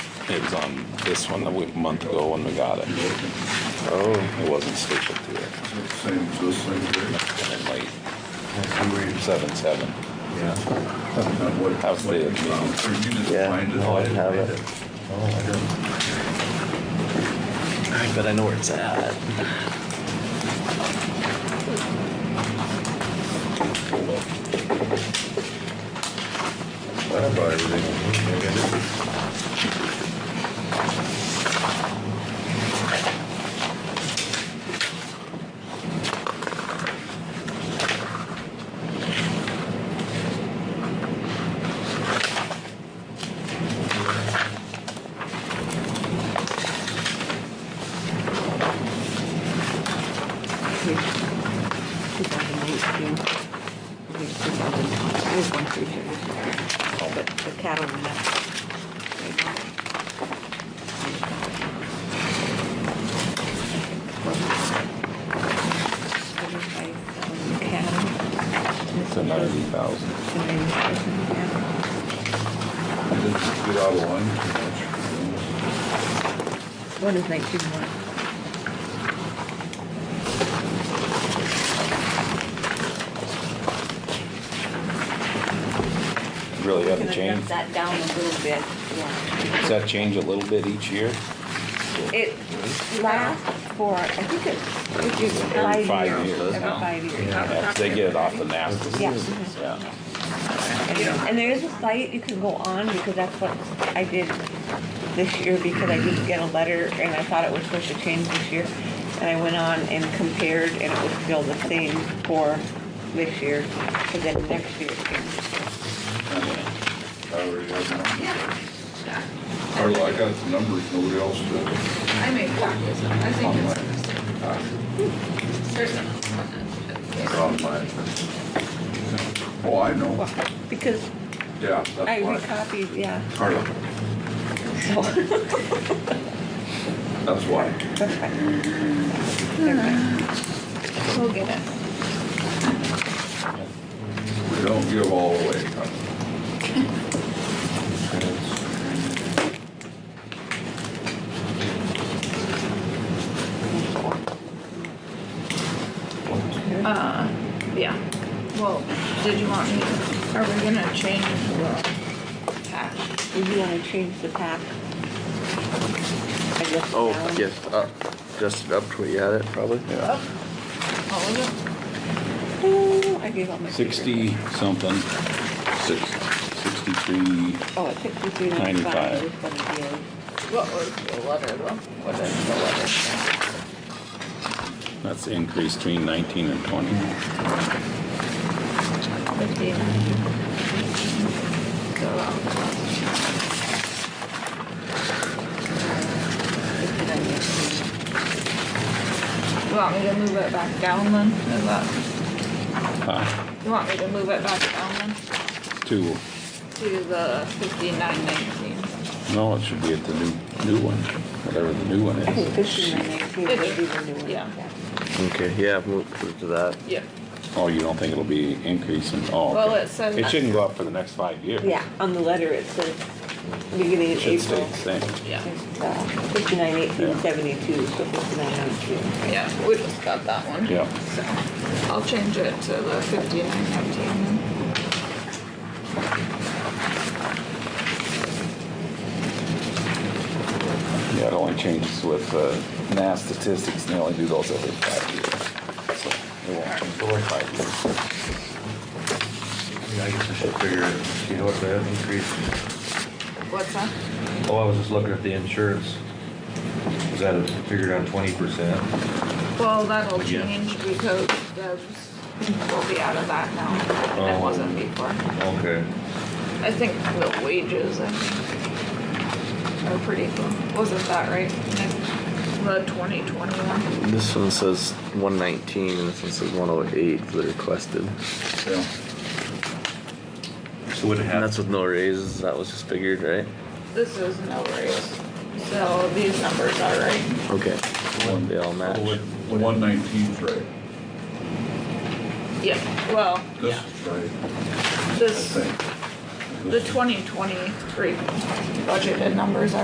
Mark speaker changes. Speaker 1: It was on this one a week, month ago when we got it.
Speaker 2: Oh.
Speaker 1: It wasn't stapled to it.
Speaker 3: Same as this thing, right?
Speaker 1: And then like
Speaker 3: That's the way
Speaker 1: seven, seven.
Speaker 2: Yeah.
Speaker 3: it's- not what-
Speaker 1: How's the-
Speaker 3: what you found. Or you just
Speaker 2: Yeah,
Speaker 3: find it.
Speaker 2: no, I have it. But I know where it's at.
Speaker 3: That's probably everything.
Speaker 4: There's one through here. But the cattle went up. Thirty-five thousand cattle.
Speaker 1: It's a ninety thousand.
Speaker 4: And then cattle.
Speaker 3: Just Get out of line too much.
Speaker 4: One is nineteen one.
Speaker 1: Really
Speaker 4: Can
Speaker 1: haven't
Speaker 4: I
Speaker 1: changed.
Speaker 4: dump that down a little bit, yeah.
Speaker 1: Does that change a little bit each year?
Speaker 4: It lasts for, I think it's, it's
Speaker 1: Every
Speaker 4: five years.
Speaker 1: five years
Speaker 4: Every
Speaker 1: now.
Speaker 4: five years.
Speaker 1: Yeah, They get it off the NASDAQ.
Speaker 4: Yeah.
Speaker 1: Yeah.
Speaker 4: And- And there is a site you can go on because that's what I did this year because I didn't get a letter and I thought it was supposed to change this year. And I went on and compared and it was still the same for this year, but then next year it changed.
Speaker 3: I already have them. Carla, I got the numbers, nobody else did.
Speaker 5: I made copies. I think
Speaker 3: Online.
Speaker 5: it's,
Speaker 6: Oh,
Speaker 5: there's some on that.
Speaker 3: Online. Oh, I know,
Speaker 4: Because
Speaker 3: yeah, that's
Speaker 4: I
Speaker 3: why.
Speaker 4: recopied, yeah,
Speaker 3: Carla,
Speaker 4: so.
Speaker 3: that's why.
Speaker 4: That's fine. Never mind.
Speaker 5: We'll get it.
Speaker 3: We don't give all away, Carla.
Speaker 5: Uh, yeah. Well, did you want me, are we gonna change the tax?
Speaker 4: Would you wanna change the pack? I guess
Speaker 2: Oh,
Speaker 4: now.
Speaker 2: yes, up, just up to where you had it, probably.
Speaker 5: All of
Speaker 4: Oh, I gave all my. papers.
Speaker 1: Sixty something, six, sixty-three,
Speaker 4: Oh, it's sixty-three ninety-five. is what it is.
Speaker 5: it? What was the letter though? What is the letter? say?
Speaker 1: that's the increase between nineteen and twenty.
Speaker 5: Fifteen. So, um, You want me to move it back down then? Is that,
Speaker 1: Ah,
Speaker 5: you want me to move it back down then
Speaker 1: Two,
Speaker 5: to the fifty-nine nineteen?
Speaker 1: no, it should be at the new, new one, whatever the new one
Speaker 4: I think
Speaker 1: is.
Speaker 4: fifty-nine nineteen would be the new one.
Speaker 5: Yeah.
Speaker 2: Okay, yeah, move move to that.
Speaker 5: Yeah.
Speaker 1: Oh, you don't think it'll be increasing, oh.
Speaker 5: Well,
Speaker 1: okay.
Speaker 5: it says-
Speaker 1: It shouldn't go up for the next five years.
Speaker 4: Yeah, on the letter it says beginning
Speaker 1: It
Speaker 4: of
Speaker 1: should stay
Speaker 4: April.
Speaker 1: the same.
Speaker 5: Yeah.
Speaker 4: Fifty-nine eighteen
Speaker 1: Yeah.
Speaker 4: seventy-two, so fifty-nine oh nineteen.
Speaker 5: Yeah, we just got that one.
Speaker 1: Yeah.
Speaker 5: So I'll change it to the fifty-nine nineteen.
Speaker 1: Yeah, it only changes with, uh, NAS statistics, and they only do those every five years. So It won't change every five years.
Speaker 6: Yeah, I guess I should figure, it. see what the increase,
Speaker 5: What's that?
Speaker 6: oh, I was just looking at the insurance. Is that figured on twenty percent?
Speaker 5: Well, that'll
Speaker 6: Again.
Speaker 5: change because Deb's will be out of that now. and
Speaker 6: Oh.
Speaker 5: It wasn't before.
Speaker 6: Okay.
Speaker 5: I think the wages, I think, are pretty cool. Wasn't that right? Nick? The twenty twenty-one.
Speaker 2: This one says one nineteen and this one says one oh eight for the requested.
Speaker 3: Yeah.
Speaker 6: So would it
Speaker 2: And
Speaker 6: have,
Speaker 2: that's with no raises, that was just figured, right?
Speaker 5: This is no raise. So these numbers are right.
Speaker 2: Okay. They all match.
Speaker 3: The one nineteen's right.
Speaker 5: Yeah, well,
Speaker 3: This
Speaker 5: yeah.
Speaker 3: is right, I
Speaker 5: This,
Speaker 3: think.
Speaker 5: the twenty twenty-three budgeted numbers are